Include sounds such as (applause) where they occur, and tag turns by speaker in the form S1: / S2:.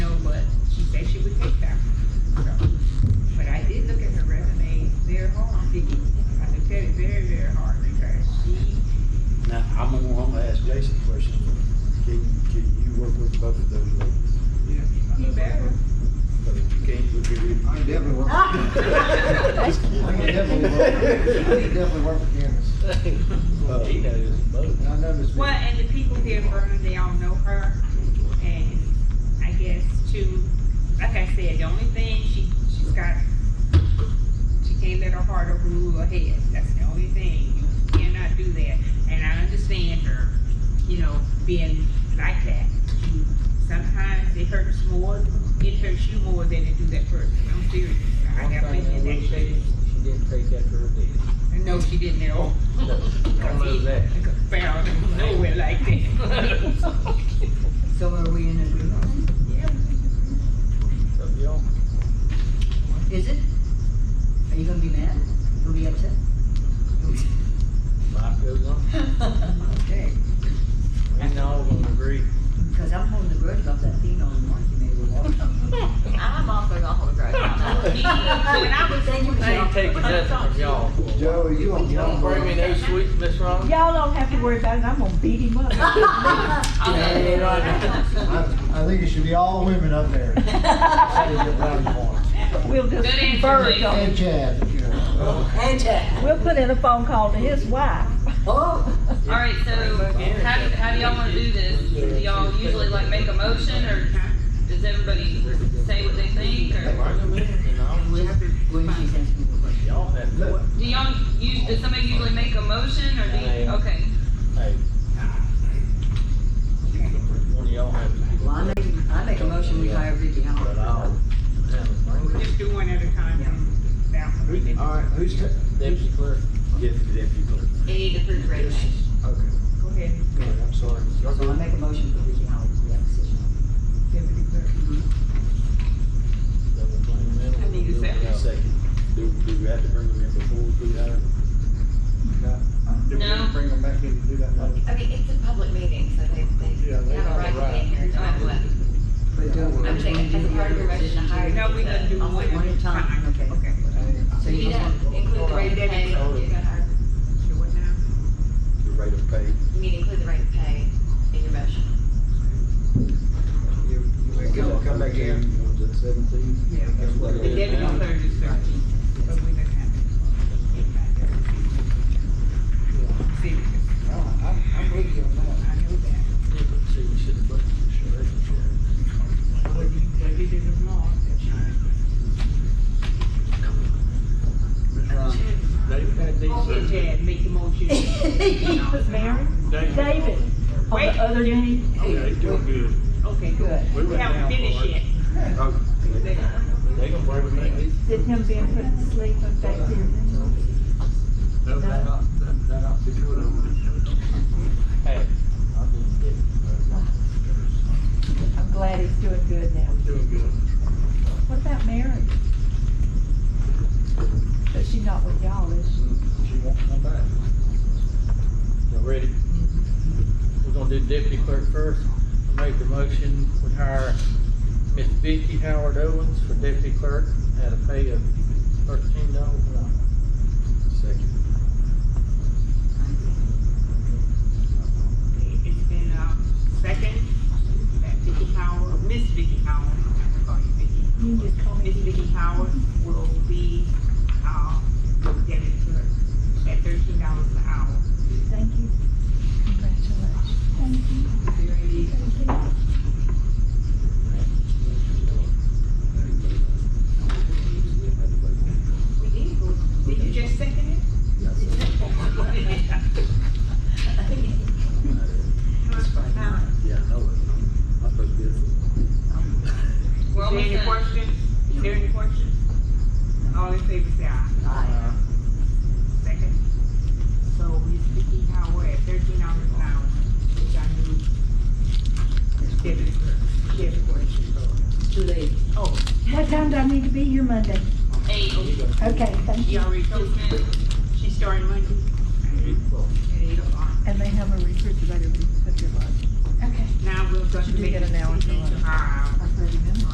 S1: definitely worked, he definitely worked for Candace.
S2: He knows (laughs) both.
S1: And I know Miss.
S3: Well, and the people here in Vernon, they all know her, and I guess too, like I said, the only thing she, she's got, she can't let her heart overrule her head, that's the only thing, you cannot do that, and I understand her, you know, being like that. You- Sometimes it hurts more, it hurts you more than it do that person, I'm serious, I
S2: One
S3: got
S2: thing
S3: plenty
S2: I
S3: of
S2: will
S3: that.
S2: say, she didn't take after her did.
S3: No, she didn't at all.
S2: No, I know that.
S3: Found nowhere like
S2: (laughs)
S3: that.
S4: So are we in agreement?
S3: Yeah.
S2: So, y'all,
S4: Is it? Are you gonna be mad? You'll be upset?
S2: life goes on.
S4: Okay,
S2: We all gonna agree.
S4: because I'm holding the grudge about that female in March you made with Walter.
S5: I'm also gonna hold a grudge on that.
S3: When I was
S4: Thank you,
S2: I
S4: Michelle.
S2: ain't taking nothing from y'all. for a while.
S1: Joe, you on
S2: You
S1: your
S2: don't
S1: own.
S2: bring me no sweets, Miss Ron?
S6: Y'all don't have to worry about it, I'm gonna beat him up.
S1: I, I think it should be all women up there. That is your brownie points.
S6: We'll just
S3: Good answer,
S6: converge
S3: Lee.
S6: on
S1: And
S6: him.
S1: Chad, you know.
S4: Hey, Chad.
S6: We'll put in a phone call to his wife.
S4: Oh,
S5: Alright, so how, do- how do y'all wanna do this? Do y'all usually like make a motion or does everybody say what they think or?
S2: Mine are in, and I'll-
S4: we have to, when she sends me the question.
S2: Y'all have to,
S1: Look,
S5: Do y'all, us- does somebody usually make a motion or do you, okay.
S2: hey. One of y'all have to. do it.
S4: Well, I make, I make a motion, we hire Vicky
S2: But uh,
S4: Howard.
S2: I'll have a
S3: We'll
S2: bring
S3: just do one at a time. and that one.
S1: All right, who's, ta-
S2: Deputy clerk. Yes, deputy clerk.
S5: They need to prove resignation.
S1: okay,
S3: Go ahead,
S1: go ahead, I'm sorry.
S4: So I make a motion for Vicky Howard to be our position.
S3: Deputy Clerk. I need a second.
S7: Do, do we have to bring them in before we do that?
S1: Do we
S5: No.
S1: Bring them back in to do that motion.
S8: I mean, it's a public meeting, so they, they
S1: Yeah,
S8: have
S1: they
S8: a right to be here, don't have what.
S4: But do we-
S8: I'm saying, as a part of your motion to hire.
S3: No, we're gonna do
S4: Oh,
S3: one at a time.
S4: okay.
S3: Okay.
S4: So
S8: You
S4: you just
S8: don't
S4: want.
S8: include the rate of pay, you're gonna hire,
S3: Do what now?
S7: The rate of pay?
S8: you need to include the rate of pay in your (laughs) motion.
S1: You, you may come, come back in.
S7: One's at seventeen?
S3: Yeah,
S1: that's what
S3: The
S1: it
S7: is
S3: Deputy
S7: now.
S3: Clerk is thirteen, but we didn't have it. See,
S1: No, I, I'm with you on that.
S3: I know that.
S2: See, we should have brought the
S3: What you, what you did was wrong that time.
S1: Ms. Ryan,
S2: sheriff. They've had
S3: Go ahead,
S2: these,
S3: Chad, make the motion.
S6: He was married,
S2: they,
S6: David, on the other end.
S2: they doing good.
S3: Okay, good.
S2: We
S3: We
S2: went down
S3: haven't
S2: for
S3: finished
S2: it.
S3: yet.
S7: Oh,
S3: They-
S2: They gonna bring them in.
S6: Did him being put to sleep and back then.
S2: That, that, that, that ought to do it over there. Hey, I'll just get,
S6: I'm glad he's doing good now.
S2: doing good.
S6: What about Mary? But she not with y'all, is she?
S1: She won't come back.
S2: Y'all ready? We're gonna do deputy clerk first. I make the motion, we hire Miss Vicky Howard Owens for deputy clerk at a pay of thirteen dollars an hour.
S7: second.
S3: It's been, uh, second, that Vicky Howard, Miss Vicky Howard, I have to call you Vicky.
S6: You can just call
S3: Miss
S6: me.
S3: Vicky Howard will be, uh, getting to at thirteen dollars an hour.
S6: Thank you. Congratulations.
S3: Is there any We did, vote. did you just second it?
S7: Yeah, I know it. I'm supposed to be.
S3: Is
S5: Well,
S3: there any questions? Is there any questions? All in favor, say aye.
S4: Aye.
S3: Second. So Miss Vicky Howard at thirteen dollars an hour, which I knew. Deputy Clerk, Deputy Clerk should go.
S4: Too late.
S3: Oh,
S6: What time do I need to be here Monday?
S5: Eight,
S6: Okay, thank
S3: she
S6: you.
S3: already told me, she starting Monday at eight o'clock.
S6: And they have a refrigerator, we put your lunch. Okay.
S3: Now we'll go to
S6: She did
S3: make
S6: get
S3: a
S6: an hour for
S3: decision to
S6: lunch.
S3: hire